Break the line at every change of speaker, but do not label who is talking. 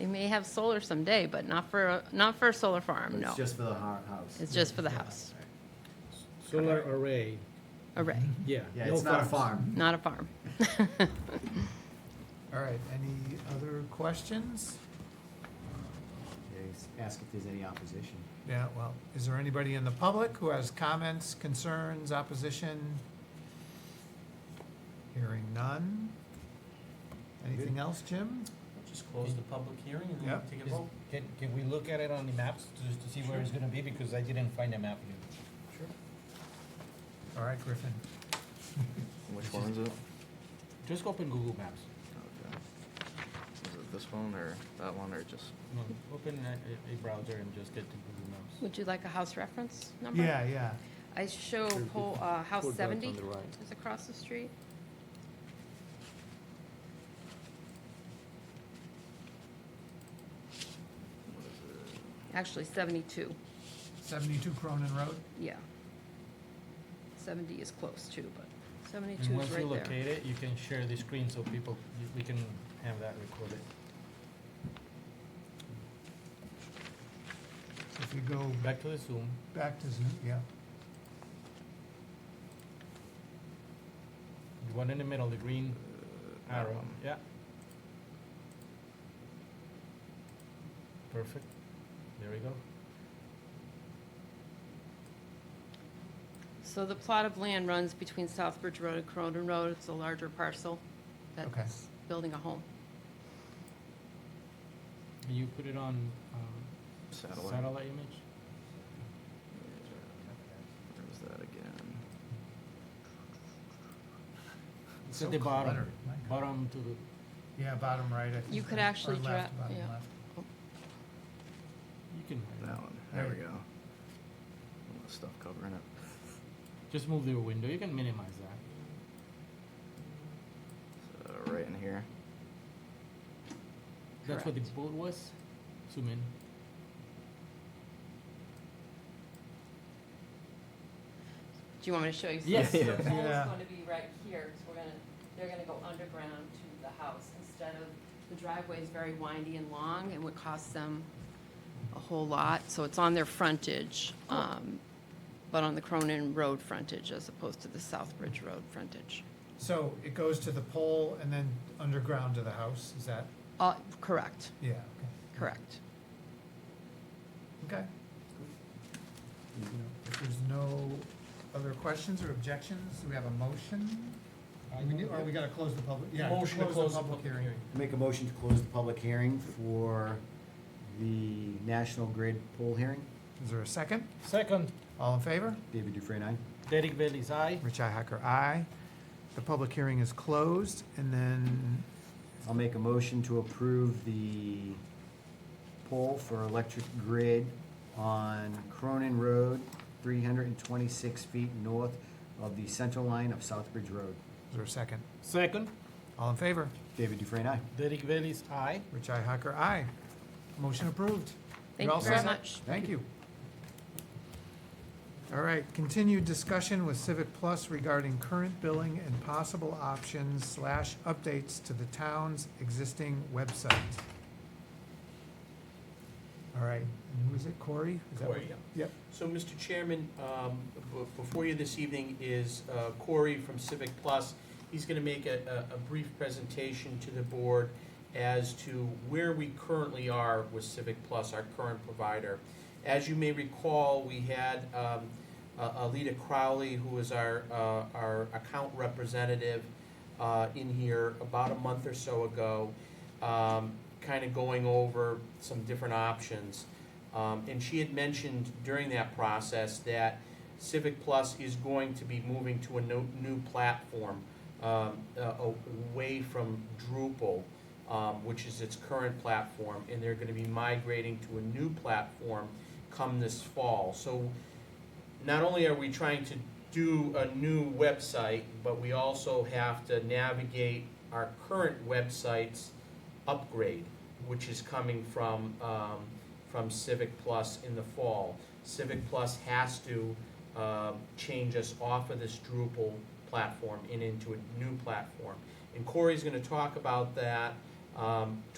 may have solar someday, but not for, a- not for a solar
Um,
farm, no.
It's just for the hou- house.
It's just for the house.
Solar array,
Array,
Mm-hmm.
yeah.
Yeah,
no
it's not a
farms.
farm.
not a farm.
All right, any other questions?
They s- Ask if there's any opposition.
Yeah, well, is there anybody in the public who has comments, concerns, opposition? Hearing none. Anything else, Jim?
Just close the public hearing and
Yeah.
then take a
Is-
vote.
Can, can we look at it on the maps to, to see where it's gonna be, because I didn't find a map here.
All right, Griffin.
Which one is it?
Just open Google Maps,
Okay. Is it this one or that one or just?
no, open a, a browser and just get to Google Maps.
Would you like a house reference number?
Yeah, yeah.
I show pole, uh,
Four
house
dots
seventy
on the right.
is across the street. Actually seventy-two,
Seventy-two Cronin Road?
yeah. Seventy is close too, but
And
seventy-two is
Once you
right there.
locate it, you can share the screen so people, you- we can have that recorded.
If you go
Back to the Zoom,
back to Zoom, yeah.
the one in the middle, the green
that
Um,
arrow,
one.
yeah. Perfect, there we go.
So the plot of land runs between Southbridge Road and Cronin Road, it's a larger parcel
Okay.
that's building a home.
And you put it on, um,
Satellite.
satellite image?
Where was that again?
It's
So
at the bottom,
cluttered, my God.
bottom to the,
Yeah, bottom right. I
You
think,
could
or- or
actually
left,
dra-
bottom
yeah.
left.
you can hide
That
that.
one. There we
Right.
go. All the stuff covering it.
Just move your window, you can minimize that.
So right in here.
That's what the boat was, zoom in.
Do you want me to show you?
Yes.
So The
Yeah.
pole's
Yeah.
gonna be right here, so we're gonna, they're gonna go underground to the house instead of, the driveway is very windy and long and would cost them a whole lot, so it's on their frontage, um, but on the Cronin Road frontage as opposed to the Southbridge Road frontage.
So it goes to the pole and then underground to the house, is that,
Uh, correct,
yeah, okay.
correct.
Okay. If there's no other questions or objections, do we have a motion? We need- Or we gotta close the public, yeah.
Motion to close the
the
public hearing.
Make a motion to close the public hearing for the National Grid poll hearing.
Is there a second?
Second,
All in favor?
David Dufresne, aye.
Derek Bailey's aye.
Richi Hacker, aye. The public hearing is closed, and then,
I'll make a motion to approve the poll for electric grid on Cronin Road, three hundred and twenty-six feet north of the center line of Southbridge Road.
is there a second?
Second,
All in favor?
David Dufresne, aye.
Derek Bailey's aye.
Richi Hacker, aye. Motion approved.
Thank
all
you very
set?
much.
Thank you. All right, continued discussion with Civic Plus regarding current billing and possible options slash updates to the town's existing website. All right, and who is it, Corey? Is that what-
Corey, yeah.
Yep,
So, Mr. Chairman, um, b- before you this evening is uh, Corey from Civic Plus. He's going to make a a- a brief presentation to the board as to where we currently are with Civic Plus, our current provider. As you may recall, we had um, uh, Alita Crowley, who is our uh, our account representative, uh, in here about a month or so ago, kind of going over some different options. Um, And she had mentioned during that process that Civic Plus is going to be moving to a no- new platform um, uh, away from Drupal, um, which is its current platform, and they're going to be migrating to a new platform come this fall. So not only are we trying to do a new website, but we also have to navigate our current website's upgrade, which is coming from, um, from Civic Plus in the fall. Civic Plus has to, um, change us off of this Drupal platform and into a new platform. And Corey's gonna talk about that, um,